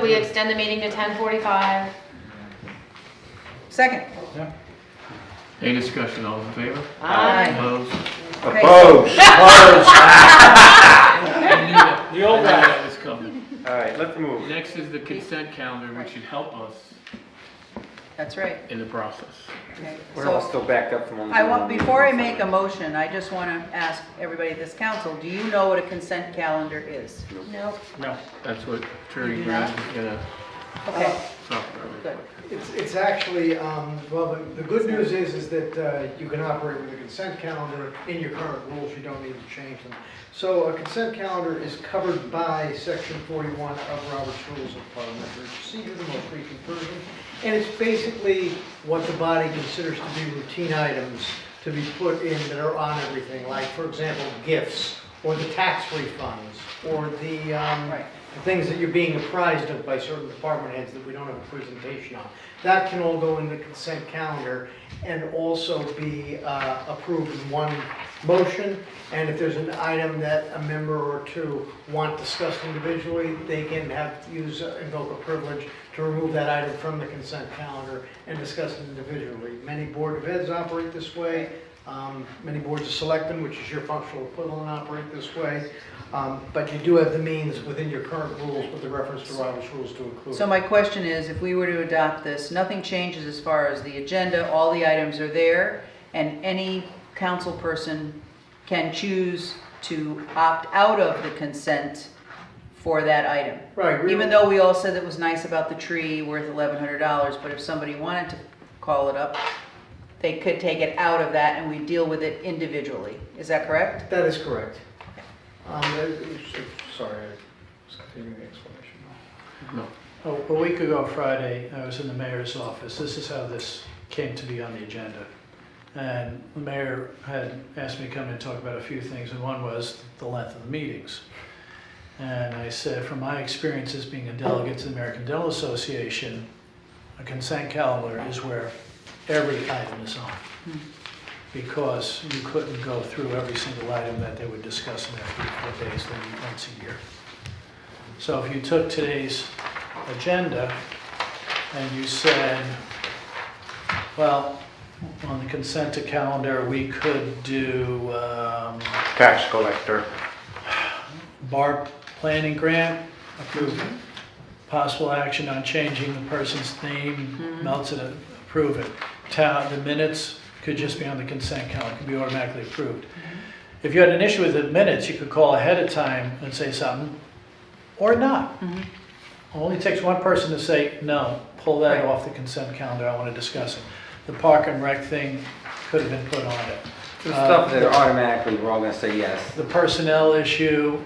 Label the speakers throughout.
Speaker 1: we extend the meeting to ten forty-five.
Speaker 2: Second.
Speaker 3: Any discussion, all in favor?
Speaker 2: Aye.
Speaker 3: Opposed? I
Speaker 2: Okay.
Speaker 4: Opposed,
Speaker 3: knew that-
Speaker 5: The old
Speaker 3: I knew
Speaker 5: guy.
Speaker 3: that was coming.
Speaker 4: All right, let's move.
Speaker 3: Next is the consent calendar, which should help us
Speaker 2: That's right.
Speaker 3: in the process.
Speaker 2: Okay.
Speaker 4: We're all
Speaker 2: So
Speaker 4: still backed up from.
Speaker 2: I want, before I make a motion, I just want to ask everybody at this council, do you know what a consent calendar is?
Speaker 1: Nope.
Speaker 5: No,
Speaker 3: That's what Attorney
Speaker 2: You do not?
Speaker 3: Grant is gonna
Speaker 2: Okay,
Speaker 3: talk about.
Speaker 2: good.
Speaker 6: It's, it's actually, um, well, the, the good news is, is that uh, you can operate with a consent calendar in your current rules, you don't need to change them. So a consent calendar is covered by section forty-one of Robert's Rules of Parliamentary Procedure, the most recent version. And it's basically what the body considers to be routine items to be put in that are on everything, like, for example, gifts, or the tax refunds, or the, um,
Speaker 2: Right.
Speaker 6: the things that you're being apprised of by certain department heads that we don't have a presentation on. That can all go in the consent calendar and also be uh, approved in one motion. And if there's an item that a member or two want discussed individually, they can have, use, uh, invoke a privilege to remove that item from the consent calendar and discuss it individually. Many board of heads operate this way. Um, Many boards of selectmen, which is your functional equivalent, operate this way. Um, But you do have the means within your current rules with the reference to Robert's rules to include.
Speaker 2: So my question is, if we were to adopt this, nothing changes as far as the agenda, all the items are there, and any council person can choose to opt out of the consent for that item.
Speaker 6: Right, we-
Speaker 2: Even though we all said that was nice about the tree worth eleven hundred dollars, but if somebody wanted to call it up, they could take it out of that and we deal with it individually. Is that correct?
Speaker 6: That is correct. Um, uh, Sorry, I was continuing the explanation.
Speaker 3: No.
Speaker 7: A a week ago Friday, I was in the mayor's office. This is how this came to be on the agenda. And the mayor had asked me to come in and talk about a few things, and one was the length of the meetings. And I said, from my experience as being a delegate to the American Dental Association, a consent calendar is where every item is on. Because you couldn't go through every single item that they would discuss in their three, four days, maybe once a year. So if you took today's agenda and you said, well, on the consent to calendar, we could do um,
Speaker 4: Tax collector.
Speaker 7: bar planning grant, approve it. Possible action on changing the person's name, melts it, approve it. Town, the minutes could just be on the consent calendar, could be automatically approved. If you had an issue with the minutes, you could call ahead of time and say something, or not. Only takes one person to say, no, pull that
Speaker 2: Right.
Speaker 7: off the consent calendar, I want to discuss it. The park and rec thing could have been put on it.
Speaker 4: The
Speaker 7: Uh,
Speaker 4: stuff that automatically, we're all gonna say yes.
Speaker 7: the personnel issue,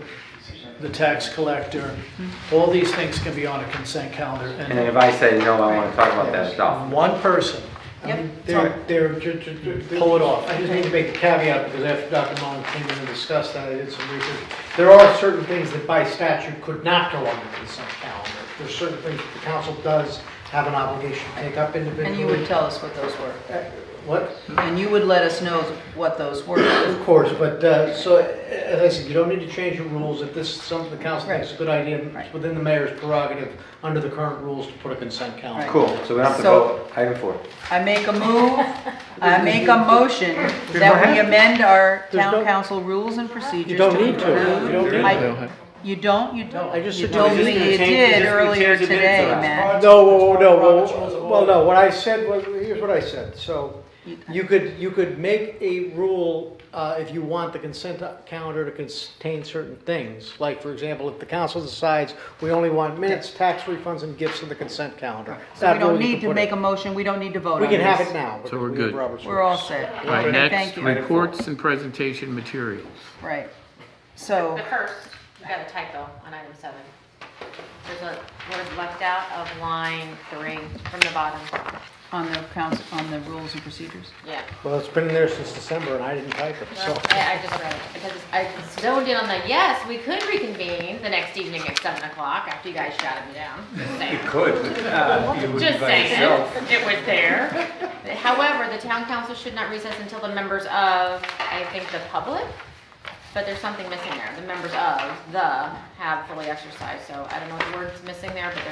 Speaker 7: the tax collector, all these things can be on a consent calendar.
Speaker 4: And then if
Speaker 7: And
Speaker 4: I say no, I wanna talk about that stuff.
Speaker 7: one person,
Speaker 6: I
Speaker 2: Yep.
Speaker 6: mean, They're, they're, ju- ju- ju- ju-
Speaker 7: Pull it off.
Speaker 6: I just need to make the caveat, because after Dr. Mullen came in and discussed that, I did some research. There are certain things that by statute could not go on the consent calendar. There's certain things that the council does have an obligation to take up individually.
Speaker 2: And you would tell us what those were.
Speaker 6: Uh, What?
Speaker 2: And you would let us know what those were.
Speaker 6: Of course, but, uh, so, uh, as I said, you don't need to change your rules. If this is something the council thinks is a good idea, it's
Speaker 2: Right.
Speaker 6: within the mayor's prerogative, under the current rules, to put a consent calendar.
Speaker 2: Right.
Speaker 4: Cool, so we don't have to
Speaker 2: So-
Speaker 4: vote. Item four.
Speaker 2: I make a move, I make a motion that we amend our town council rules and procedures.
Speaker 6: You don't need to. You
Speaker 2: include-
Speaker 6: don't need
Speaker 3: We
Speaker 2: I-
Speaker 3: don't have-
Speaker 2: You don't, you don't.
Speaker 6: I just
Speaker 2: You
Speaker 6: said-
Speaker 2: told
Speaker 6: Just
Speaker 2: me
Speaker 4: gonna
Speaker 2: you
Speaker 4: change-
Speaker 2: did
Speaker 4: just gonna
Speaker 2: earlier
Speaker 4: change the minutes
Speaker 2: today,
Speaker 4: around.
Speaker 2: Matt.
Speaker 6: No, whoa, whoa, no, well, well, no, what I said, was here's what I said, so you could, you could make a rule, uh, if you want the consent calendar to contain certain things, like, for example, if the council decides, we only want minutes, tax refunds, and gifts in the consent calendar.
Speaker 2: So we don't need to make a motion, we don't need to vote on
Speaker 6: We
Speaker 2: this.
Speaker 6: can have it now.
Speaker 3: So we're
Speaker 6: with
Speaker 3: good.
Speaker 6: Robert's
Speaker 2: We're all
Speaker 6: rules.
Speaker 2: set.
Speaker 3: All right,
Speaker 2: Thank
Speaker 3: next,
Speaker 2: you.
Speaker 3: reports and presentation materials.
Speaker 2: Right. So,
Speaker 8: The first, we got a typo on item seven. There's a word left out of line three from the bottom.
Speaker 2: on the council, on the rules and procedures?
Speaker 8: Yeah.
Speaker 6: Well, it's been in there since December, and I didn't type it, so.
Speaker 8: Well, I I just read it because I zoned in on the, yes, we could reconvene the next evening at seven o'clock after you guys shouted me down. Just saying.
Speaker 4: Good. You would
Speaker 8: Just saying, it was there. However, the town council should not recess until the members of, I think, the public, but there's something missing there. The members of, the, have fully exercised, so I don't know what the word's missing there, but there's